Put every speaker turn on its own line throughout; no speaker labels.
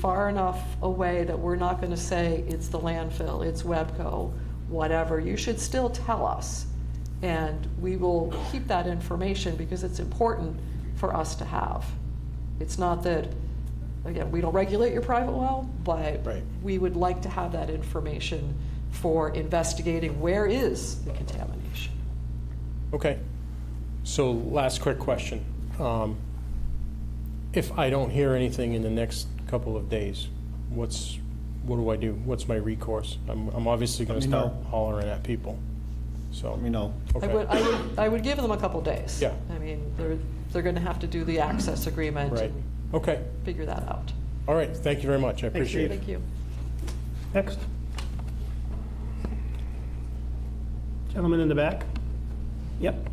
far enough away that we're not going to say it's the landfill, it's Webco, whatever. You should still tell us, and we will keep that information because it's important for us to have. It's not that, again, we don't regulate your private well, but
Right.
we would like to have that information for investigating where is the contamination.
Okay. So last quick question. Um, If I don't hear anything in the next couple of days, what's, what do I do? What's my recourse? I'm, I'm obviously going
Let
to
me
start
know.
hollering at people, so.
Let me know.
I would,
Okay.
I would, I would give them a couple days.
Yeah.
I mean, they're, they're going to have to do the access agreement
Right.
and
Okay.
figure that out.
All right. Thank you very much. I
Thanks,
appreciate it.
Thank you.
Next.
Gentleman in the back? Yep.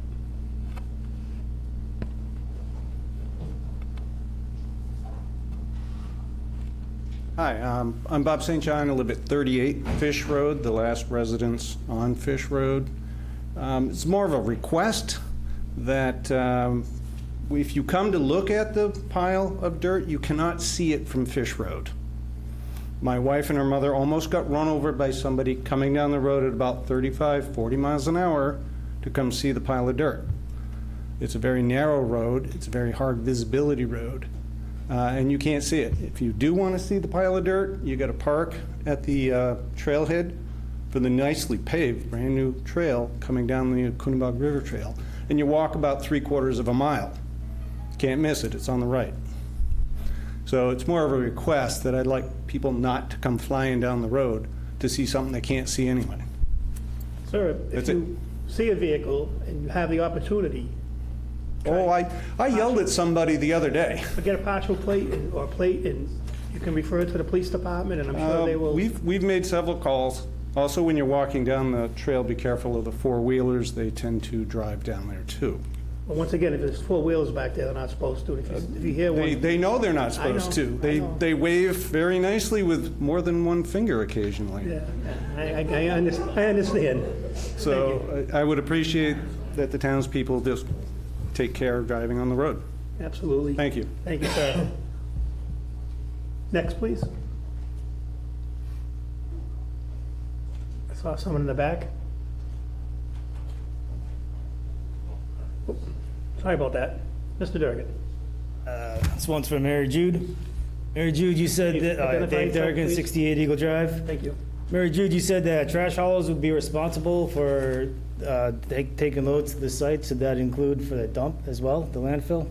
Hi, um, I'm Bob St. John. I live at 38 Fish Road, the last residence on Fish Road. Um, It's more of a request that um, if you come to look at the pile of dirt, you cannot see it from Fish Road. My wife and her mother almost got run over by somebody coming down the road at about 35, 40 miles an hour to come see the pile of dirt. It's a very narrow road, it's a very hard visibility road, uh, and you can't see it. If you do want to see the pile of dirt, you got to park at the uh, trailhead for the nicely paved, brand-new trail coming down the Coonabog River Trail, and you walk about three-quarters of a mile. Can't miss it, it's on the right. So it's more of a request that I'd like people not to come flying down the road to see something they can't see anyway.
Sir, if
That's it.
you see a vehicle and you have the opportunity,
Oh, I, I yelled at somebody the other day.
get a partial plate and- or plate, and you can refer it to the police department, and I'm sure they
Um,
will.
We've, we've made several calls. Also, when you're walking down the trail, be careful of the four-wheelers. They tend to drive down there, too.
But once again, if there's four wheels back there, they're not supposed to. If you- if you hear
They,
one,
they know they're not
I know,
supposed to.
I
They,
know.
they wave very nicely with more than one finger occasionally.
yeah, I, I- I under- I understand.
So I I would appreciate that the townspeople just take care of driving on the road.
Absolutely.
Thank you.
Thank you, sir. Next, please. I saw someone in the back. Oop, Sorry about that. Mr. Durgan.
This one's for Mary Jude. Mary Jude, you said that, uh,
Identify
Dave
yourself,
Durgan,
please.
68 Eagle Drive.
Thank you.
Mary Jude, you said that trash haulers would be responsible for uh, ta- taking loads to the site. Should that include for the dump as well, the landfill?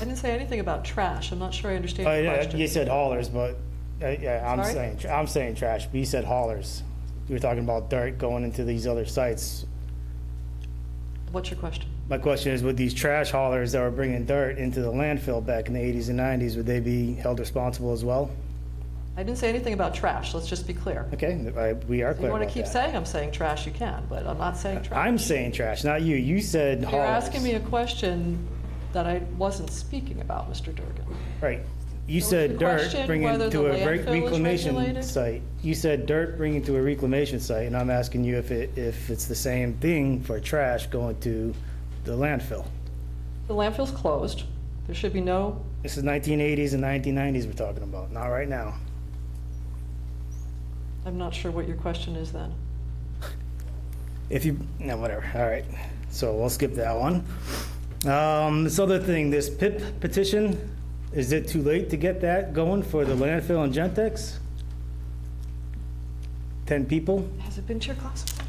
I didn't say anything about trash. I'm not sure I understand
Uh,
your
yeah,
question.
You said haulers, but, uh, yeah, I'm
Sorry?
saying, I'm saying trash, but you said haulers. You were talking about dirt going into these other sites.
What's your question?
My question is, would these trash haulers that were bringing dirt into the landfill back in the 80s and 90s, would they be held responsible as well?
I didn't say anything about trash. Let's just be clear.
Okay, I- we are
If you
clear
want to
about
keep
that.
saying I'm saying trash, you can, but I'm not saying trash.
I'm saying trash, not you. You said
You're
haulers.
asking me a question that I wasn't speaking about, Mr. Durgan.
Right. You
was the
said dirt
question
bringing
whether
to
the
a re-
landfill is
reclamation
regulated?
site. You said dirt bringing to a reclamation site, and I'm asking you if it, if it's the same thing for trash going to the landfill.
The landfill's closed. There should be no,
This is 1980s and 1990s we're talking about, not right now.
I'm not sure what your question is then.
If you, no, whatever, all right. So we'll skip that one. Um, this other thing, this PIP petition, is it too late to get that going for the landfill and Gentex? 10 people?
Has it been tier classified?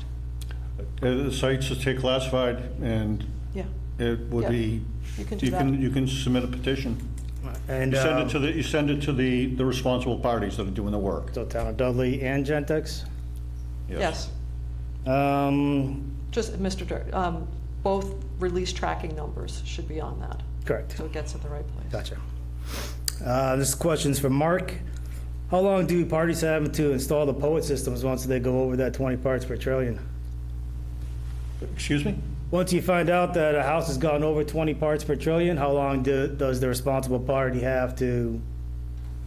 Uh, The sites that stay classified, and
Yeah.
it would be,
You can do
you can,
that.
you can submit a petition.
And,
You send
um,
it to the, you send it to the, the responsible parties that are doing the work.
So Town of Dudley and Gentex?
Yes.
Um,
Just, Mr. Durgan, um, both release tracking numbers should be on that,
correct.
so it gets at the right place.
Gotcha. Uh, this question's for Mark. How long do parties have to install the poet systems once they go over that 20 parts per trillion?
Excuse me?
Once you find out that a house has gone over 20 parts per trillion, how long do, does the responsible party have to,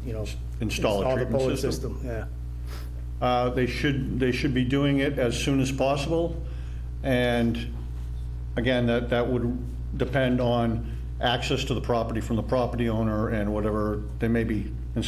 you know,
Install a
the
treatment
POET
system.
system? Yeah.
Uh, They should, they should be doing it as soon as possible, and again, that, that would depend on access to the property from the property owner and whatever, they may be